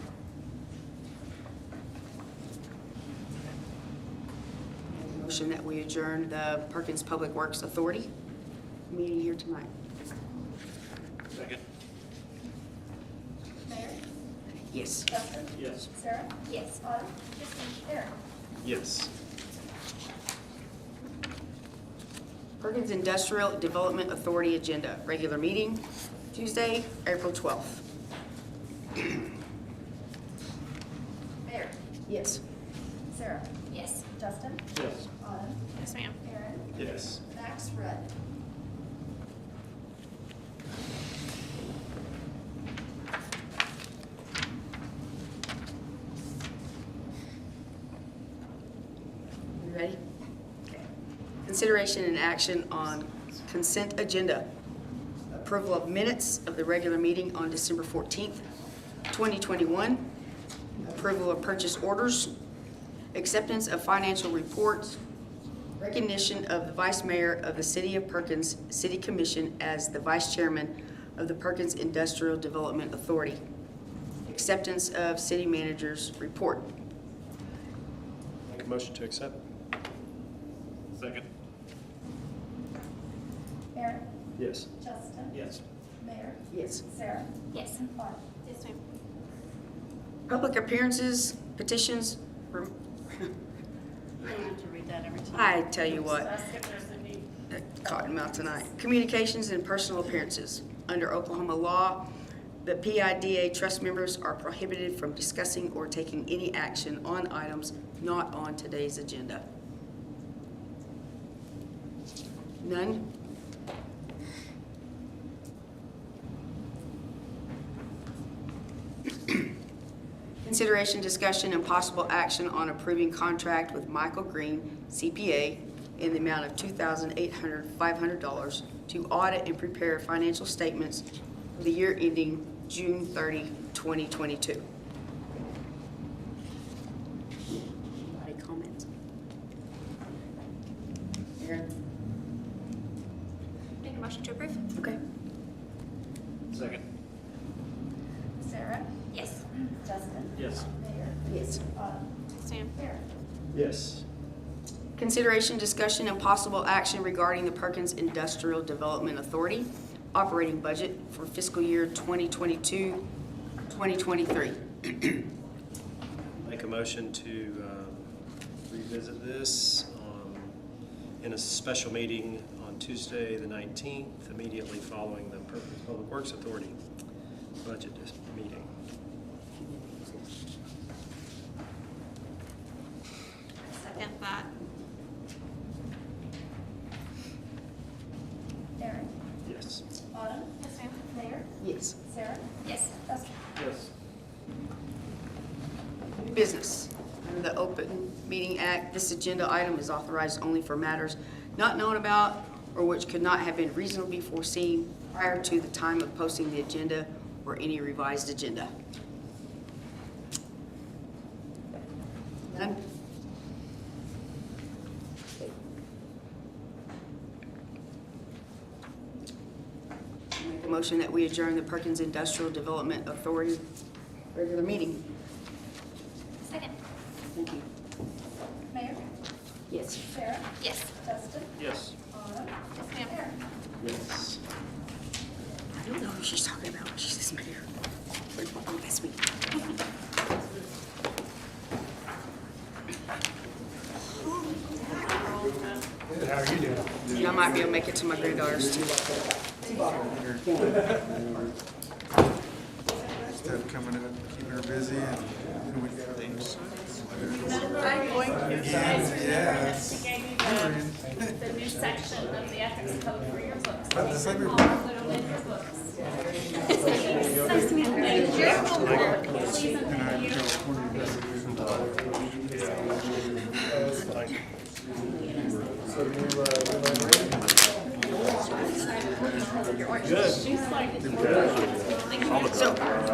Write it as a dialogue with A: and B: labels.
A: motion that we adjourn the Perkins Public Works Authority meeting here tonight.
B: Second.
C: Mayor,
A: Yes.
C: Justin,
B: Yes.
C: Sarah? Yes. Autumn? Aaron?
B: Yes.
A: Perkins Industrial Development Authority Agenda, regular meeting, Tuesday, April 12th.
C: Mayor?
A: Yes.
C: Sarah? Yes. Justin?
B: Yes.
C: Autumn?
D: Yes, ma'am.
C: Aaron?
B: Yes.
C: Max Rudd?
A: You ready? Consideration and action on consent agenda. Approval of minutes of the regular meeting on December 14th, 2021. Approval of purchase orders. Acceptance of financial reports. Recognition of the Vice Mayor of the City of Perkins City Commission as the Vice Chairman of the Perkins Industrial Development Authority. Acceptance of City Manager's Report.
B: Make a motion to accept. Second.
C: Aaron?
B: Yes.
C: Justin?
B: Yes.
C: Mayor?
A: Yes.
C: Sarah?
D: Yes.
C: Autumn?
D: Yes, ma'am.
A: Public appearances, petitions, rem-
D: I have to read that every time.
A: I tell you what,
D: Ask if there's any.
A: Cottonmouth tonight. Communications and personal appearances. Under Oklahoma law, the PIDA trust members are prohibited from discussing or taking any action on items not on today's agenda. None? Consideration, discussion, and possible action on approving contract with Michael Green CPA in the amount of $2,800, $500 to audit and prepare financial statements for the year ending June 30, 2022. Any comments? Aaron?
D: Make a motion to approve?
A: Okay.
B: Second.
C: Sarah?
D: Yes.
C: Justin?
B: Yes.
C: Mayor?
A: Yes.
C: Autumn?
D: Yes, ma'am.
C: Aaron?
B: Yes.
A: Consideration, discussion, and possible action regarding the Perkins Industrial Development Authority operating budget for fiscal year 2022, 2023.
B: Make a motion to um, revisit this um, in a special meeting on Tuesday, the 19th, immediately following the Perkins Public Works Authority budget dis- meeting.
D: Second that.
C: Aaron?
B: Yes.
C: Autumn?
D: Yes, ma'am.
C: Mayor?
A: Yes.
C: Sarah?
D: Yes.
C: Justin?
B: Yes.
A: New business. Under the Open Meeting Act, this agenda item is authorized only for matters not known about or which could not have been reasonably foreseen prior to the time of posting the agenda or any revised agenda. None? Make a motion that we adjourn the Perkins Industrial Development Authority regular meeting.
D: Second.
A: Thank you.
C: Mayor?
A: Yes.
C: Sarah?
D: Yes.
C: Justin?
B: Yes.
C: Autumn?
D: Yes, ma'am.
C: Aaron?
B: Yes.
A: I don't know who she's talking about. when She's this mayor. We're talking this week. You know, I might be able to make it to my granddaughter's too.
E: stuff coming up, keeping her busy and doing things.
F: I'm going to, you guys remember
E: Yes.
F: that she gave me the, the new section of the ethics code for your books.
E: But the
F: They
E: same-
F: call them little mini books.
D: Nice to meet you.
F: Thank you. Please and thank you.
B: Good.
F: She's like,
A: So,